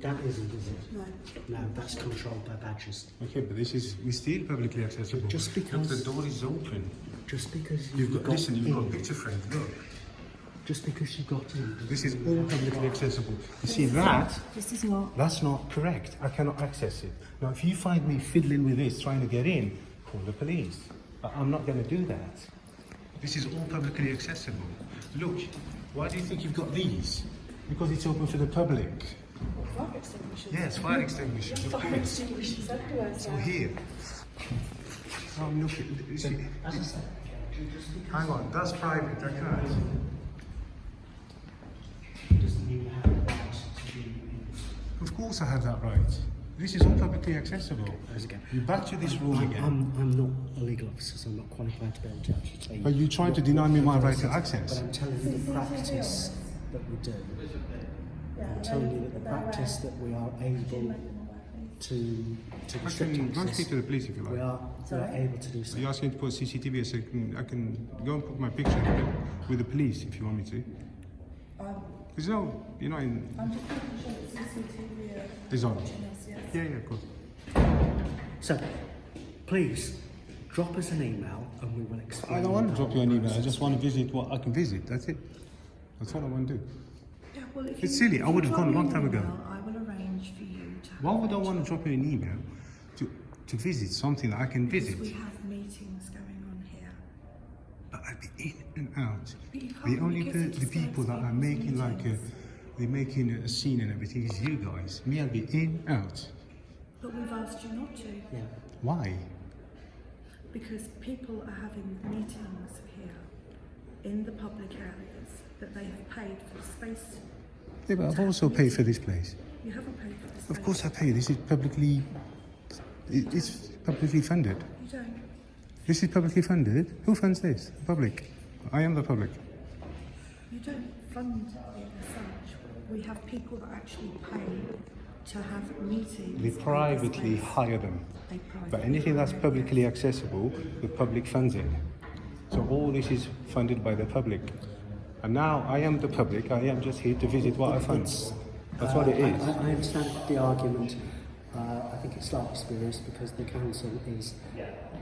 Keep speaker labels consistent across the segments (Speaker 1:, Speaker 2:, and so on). Speaker 1: That isn't, is it?
Speaker 2: No.
Speaker 1: No, that's controlled by badges.
Speaker 3: Okay, but this is we still publicly accessible.
Speaker 1: Just
Speaker 3: Look,
Speaker 1: because-
Speaker 3: the door is open.
Speaker 1: Just because you
Speaker 3: You've got, listen. You've got
Speaker 1: in-
Speaker 3: picture frame. Look,
Speaker 1: Just because you got in.
Speaker 3: this is all publicly accessible. You see that?
Speaker 2: This is not.
Speaker 3: That's not correct. I cannot access it. Now, if you find me fiddling with this, trying to get in, call the police. But I'm not going to do that. This is all publicly accessible. Look, why do you think you've got these? Because it's open for the public.
Speaker 2: Fire extinguishers.
Speaker 3: Yes, fire extinguishers, of
Speaker 2: Fire
Speaker 3: course.
Speaker 2: extinguishers everywhere.
Speaker 3: Or here. Oh, look, it- you see-
Speaker 1: As I said,
Speaker 3: hang on, that's private, I can't.
Speaker 1: doesn't mean you have a right to be in.
Speaker 3: Of course I have that right. This is all publicly accessible.
Speaker 1: As again.
Speaker 3: You're back to this rule
Speaker 1: I'm,
Speaker 3: again.
Speaker 1: I'm, I'm not a legal officer, so I'm not qualified to be able to actually tell you.
Speaker 3: But you're trying to deny me my right to access.
Speaker 1: But I'm telling you the practice that we do. I'm telling you that the practice that we are able to, to
Speaker 3: I
Speaker 1: restrict
Speaker 3: can run
Speaker 1: access.
Speaker 3: straight to the police if you
Speaker 1: We
Speaker 3: like.
Speaker 1: are, we are able to do so.
Speaker 3: You're asking to put CCTV, I said, "Mm, I can go and put my picture with- with the police if you want me to. There's no, you're not in,
Speaker 2: Um, I'm just making sure that CCTV are
Speaker 3: it's on.
Speaker 2: watching us, yes.
Speaker 3: Yeah, yeah, of course.
Speaker 1: So, please, drop us an email and we will explain.
Speaker 3: I don't want to
Speaker 1: the
Speaker 3: drop you
Speaker 1: whole
Speaker 3: an email, I
Speaker 1: process.
Speaker 3: just want to visit what I can visit, that's it. That's all I want to do.
Speaker 2: Yeah, well, if
Speaker 3: It's
Speaker 2: you-
Speaker 3: silly, I
Speaker 2: if
Speaker 3: would
Speaker 2: you
Speaker 3: have
Speaker 2: drop
Speaker 3: gone a
Speaker 2: me
Speaker 3: long
Speaker 2: an
Speaker 3: time ago.
Speaker 2: email, I will arrange for you to.
Speaker 3: Why would I
Speaker 2: have-
Speaker 3: want to drop you an email to, to visit something that I can
Speaker 2: Because
Speaker 3: visit?
Speaker 2: We have meetings going on here.
Speaker 3: But I'd be in and out.
Speaker 2: But you
Speaker 3: The
Speaker 2: can't
Speaker 3: only
Speaker 2: because
Speaker 3: pe-
Speaker 2: it
Speaker 3: the people that
Speaker 2: disturbs
Speaker 3: are
Speaker 2: people's
Speaker 3: making like a,
Speaker 2: meetings.
Speaker 3: they're making a scene and everything is you guys. Me, I'll be in out.
Speaker 2: But we've asked you not to,
Speaker 1: Yeah.
Speaker 3: Why?
Speaker 2: because people are having meetings here in the public areas that they have paid for space.
Speaker 3: Yeah, but I've also paid for this place.
Speaker 2: You haven't paid for the space.
Speaker 3: Of course, I pay. This is publicly. it- It's publicly funded.
Speaker 2: You don't.
Speaker 3: This is publicly funded. Who funds this? The public. I am the public.
Speaker 2: You don't fund it as such. We have people that actually pay to have meetings.
Speaker 3: They
Speaker 2: in this
Speaker 3: privately
Speaker 2: space.
Speaker 3: hire them.
Speaker 2: They
Speaker 3: But
Speaker 2: privately
Speaker 3: anything that's
Speaker 2: hire them.
Speaker 3: publicly accessible, the public funds it. So all this is funded by the public. And now I am the public, I am just here to visit what I fund. That's what it
Speaker 1: I,
Speaker 3: is.
Speaker 1: I I understand the argument. Uh, I think it's slightly spurious because the council is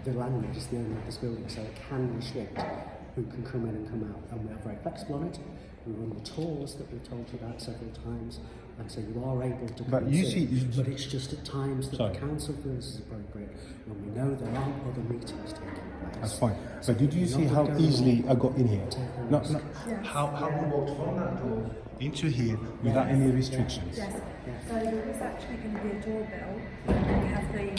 Speaker 1: the landlord is the owner of this building, so it can restrict who can come in and come out. And we are very flexible on it. We run the tours that we've told you about several times, and so you are able to. Come
Speaker 3: But
Speaker 1: and
Speaker 3: you
Speaker 1: see.
Speaker 3: see- you-
Speaker 1: but it's just at times that
Speaker 3: Sorry.
Speaker 1: the council feels is appropriate when we know there aren't other meetings taking place.
Speaker 3: That's fine. But did you see how easily I got in here? No, no. How, how we walked from that door into here without any restrictions?
Speaker 2: Yes. So there is actually going to be a doorbell, and we have the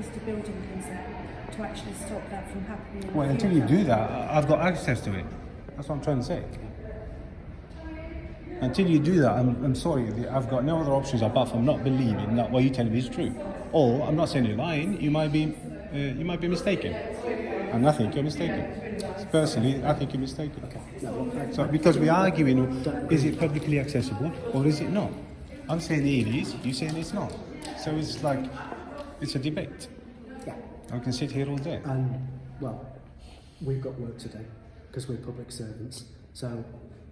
Speaker 2: Easter building concept to actually stop that from happening. in the
Speaker 3: Well, until you do
Speaker 2: future.
Speaker 3: that, I- I've got access to it. That's what I'm trying to say. Until you do that, I'm, I'm sorry, the- I've got no other options apart from not believing that what you tell me is true. Or I'm not saying you're lying. You might be, uh, you might be mistaken, and I think you're mistaken. Personally, I think you're mistaken. So because we are arguing, is it publicly accessible or is it not? I'm saying it is. You're saying it's not. So it's like, it's a debate.
Speaker 1: Yeah.
Speaker 3: I can sit here all day.
Speaker 1: And well, we've got work to do because we're public servants. So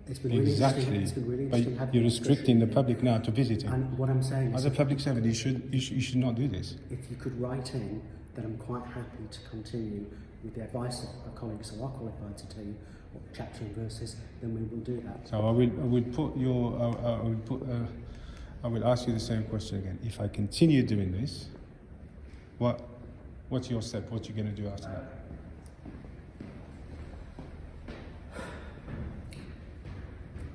Speaker 1: it's been really interesting.
Speaker 3: Exactly.
Speaker 1: It's been really interesting
Speaker 3: But
Speaker 1: having
Speaker 3: you're
Speaker 1: this discussion.
Speaker 3: restricting the public now to visiting.
Speaker 1: And what I'm saying
Speaker 3: As
Speaker 1: is,
Speaker 3: a public servant, you should, you should, you should not do this.
Speaker 1: if you could write in, then I'm quite happy to continue with the advice that our colleagues who are qualified to tell you what chapter and verse is. Then we will do that.
Speaker 3: So I will, I will put your, I, I- I will put, uh, I will ask you the same question again. If I continue doing this, what, what's your step? What you gonna do after that?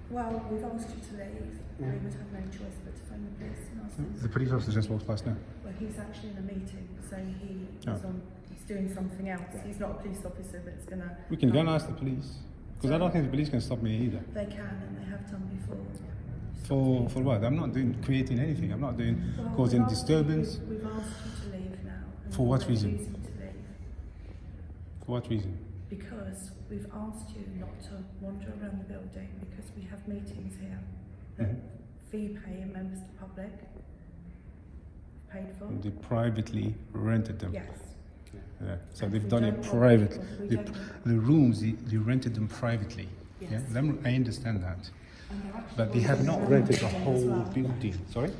Speaker 2: Well, we've asked you to leave. We
Speaker 3: Mm.
Speaker 2: would have no choice but to phone the police and ask them.
Speaker 3: The police officer just walked past now.
Speaker 2: Well, he's actually in a meeting, so he
Speaker 3: Mm. Oh.
Speaker 2: is on, he's doing something else. He's not a police officer that's going to.
Speaker 3: We can go and ask the police, because I don't think the police can stop me either.
Speaker 2: They can, and they have done before.
Speaker 3: For, for what? I'm not doing, creating anything. I'm not doing,
Speaker 2: Well,
Speaker 3: causing
Speaker 2: we've asked you-
Speaker 3: disturbance.
Speaker 2: We've asked you to leave now. and
Speaker 3: For what
Speaker 2: you're
Speaker 3: reason?
Speaker 2: refusing to leave.
Speaker 3: For what reason?
Speaker 2: Because we've asked you not to wander around the building because we have meetings here that
Speaker 3: Mm-hmm.
Speaker 2: fee paying members of the public paid for.
Speaker 3: They privately rented them.
Speaker 2: Yes.
Speaker 3: Yeah, so
Speaker 2: And
Speaker 3: they've
Speaker 2: we
Speaker 3: done
Speaker 2: don't
Speaker 3: it
Speaker 2: want
Speaker 3: private.
Speaker 2: people- we
Speaker 3: The,
Speaker 2: don't want-
Speaker 3: the rooms, they, they rented them privately. Yeah,
Speaker 2: Yes.
Speaker 3: them, I understand that.
Speaker 2: And they're actually
Speaker 3: But they have not
Speaker 2: wandering
Speaker 3: rented the
Speaker 2: around
Speaker 3: whole
Speaker 2: as well.
Speaker 3: building. Sorry?